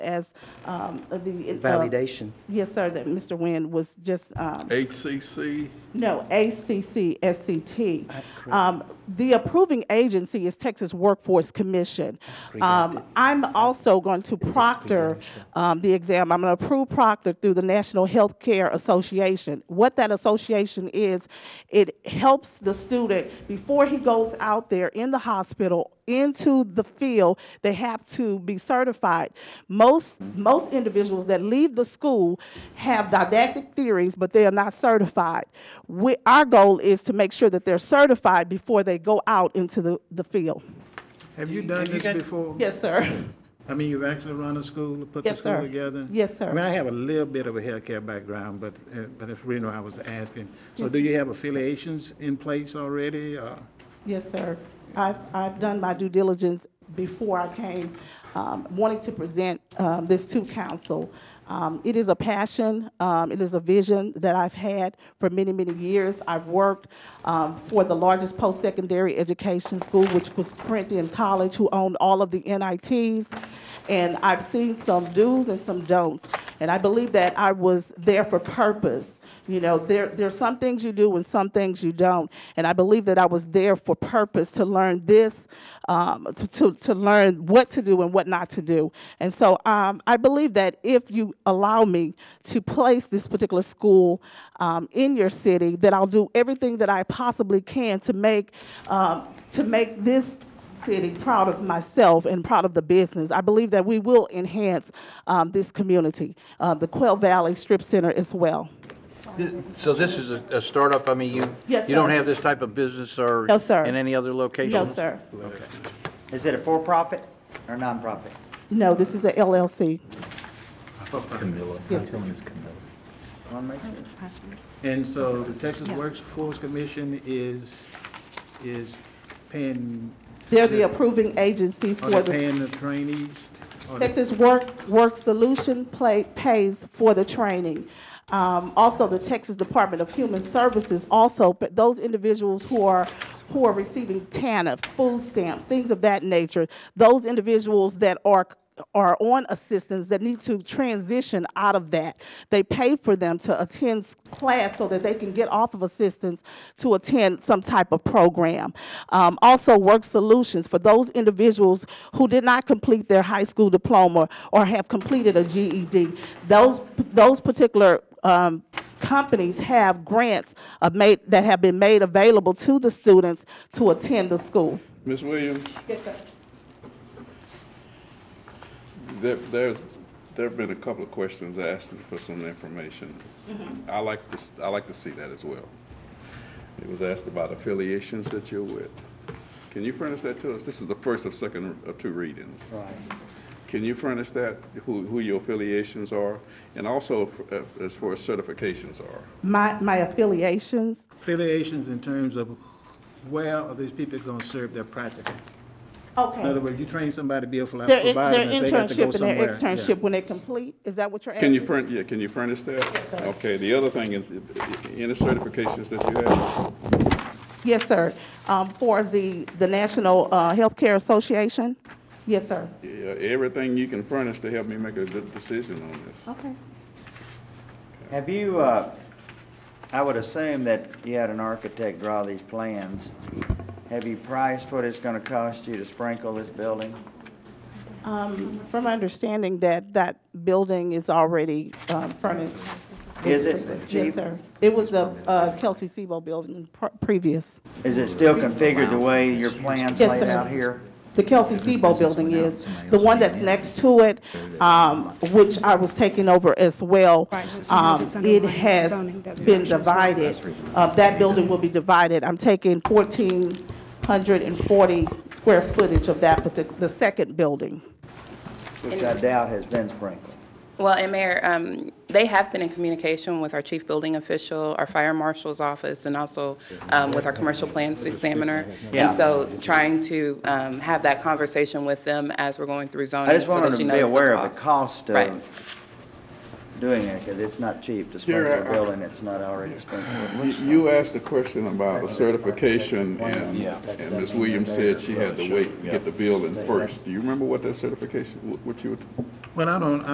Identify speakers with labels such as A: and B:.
A: as um, the. uh,
B: Validation.
A: Yes, sir, that Mr. Nguyen was just, um,
C: HCC,
A: no, ACCSCT. Um, The approving agency is Texas Workforce Commission. Um, I'm also going to proctor um, the exam. I'm going to approve proctor through the National Healthcare Association. What that association is, it helps the student, before he goes out there in the hospital, into the field, they have to be certified. Most, most individuals that leave the school have didactic theories, but they are not certified. We, our goal is to make sure that they're certified before they go out into the, the field.
D: Have you done
B: you
D: this
B: got-
D: before?
A: Yes, sir.
D: I mean, you've actually run a school, put the
A: Yes, sir.
D: school together?
A: Yes, sir.
D: I mean, I have a little bit of a healthcare background, but, uh, but if you know, I was asking. So do you have affiliations in place already? uh, or-
A: Yes, sir. I've, I've done my due diligence before I came, um, wanting to present um, this to council. Um, It is a passion, um, it is a vision that I've had for many, many years. I've worked um, for the largest post-secondary education school, which was Corinthian College, who owned all of the NITs, and I've seen some do's and some don'ts. And I believe that I was there for purpose. You know, there, there are some things you do and some things you don't. And I believe that I was there for purpose to learn this, um, to, to, to learn what to do and what not to do. And so um, I believe that if you allow me to place this particular school um, in your city, that I'll do everything that I possibly can to make, um, to make this city proud of myself and proud of the business. I believe that we will enhance um, this community, uh, the Quail Valley Strip Center as well.
E: So this is a a startup, I mean, you,
A: Yes,
E: you don't
A: sir.
E: have this type of business or?
A: No, sir.
E: In any other locations?
A: No, sir.
B: Is it a for-profit or nonprofit?
A: No, this is a LLC.
F: Camilla.
A: Yes,
F: My name is Camilla.
B: I wanna make sure.
D: And so the Texas Workforce Commission is, is paying,
A: They're the approving agency
D: are
A: for
D: they
A: the
D: paying the trainees? Are they-
A: Texas Work, Work Solution play, pays for the training. Um, also, the Texas Department of Human Services also, but those individuals who are, who are receiving TANF, food stamps, things of that nature, those individuals that are, are on assistance that need to transition out of that, they pay for them to attend s- class so that they can get off of assistance to attend some type of program. Um, also, work solutions for those individuals who did not complete their high school diploma or have completed a GED. Those, those particular um, companies have grants uh, made, that have been made available to the students to attend the school.
C: Ms. Williams,
A: Yes, sir.
C: there, there's, there've been a couple of questions asking for some information.
A: Mm-hmm.
C: I like to, s- I like to see that as well. It was asked about affiliations that you're with. Can you furnish that to us? This is the first of second of two readings. Right. Can you furnish that, who, who your affiliations are, and also uh, as far as certifications are?
A: My, my affiliations,
D: Affiliations in terms of where are these people going to serve their practical? In other
A: okay.
D: words, you train somebody to be a phlebotomist,
A: Their, in-
D: they
A: their
D: got to go
A: internship and
D: somewhere.
A: their
D: Yeah.
A: externship when they complete, is that what you're asking?
C: Can you furnish, yeah, can you furnish that? Okay, the other thing is, any certifications that you have?
A: Yes, sir. Um, For as the, the National uh, Healthcare Association? Yes, sir.
C: Yeah, everything you can furnish to help me make a good decision on this.
A: Okay.
B: Have you, uh, I would assume that you had an architect draw these plans. Have you priced what it's gonna cost you to sprinkle this building?
A: Um, From my understanding that that building is already um, furnished.
B: Is it cheap?
A: Yes, sir. It was the uh, Kelsey Sebo building pr- previous.
B: Is it still configured the way your plans
A: Yes,
B: laid
A: sir.
B: out here?
A: The Kelsey Sebo building is, the one that's next to it, um, which I was taking over as well.
G: Right, that's the one
A: um,
G: that's under
A: It
G: my
A: has
G: zoning designation
A: been
G: as well.
A: divided. Uh, That building will be divided. I'm taking 1,440 square footage of that particular, the second building.
B: Which I doubt has been sprinkled.
H: Well, and Mayor, um, they have been in communication with our chief building official, our fire marshal's office, and also um, with our commercial plans examiner.
B: Yeah.
H: And so trying to um, have that conversation with them as we're going through zoning.
B: I just
H: so that
B: wanted to be
H: she knows the
B: aware of the cost
H: Right.
B: of doing it, because it's not cheap to
C: Here, I-
B: sprinkle a
C: I-
B: building, it's not already sprinkled.
C: You- You asked a question about the certification, and, and Ms. Williams said she had to wait, and get the building first. Do you remember what that certification, what you, were-
D: Well, I don't,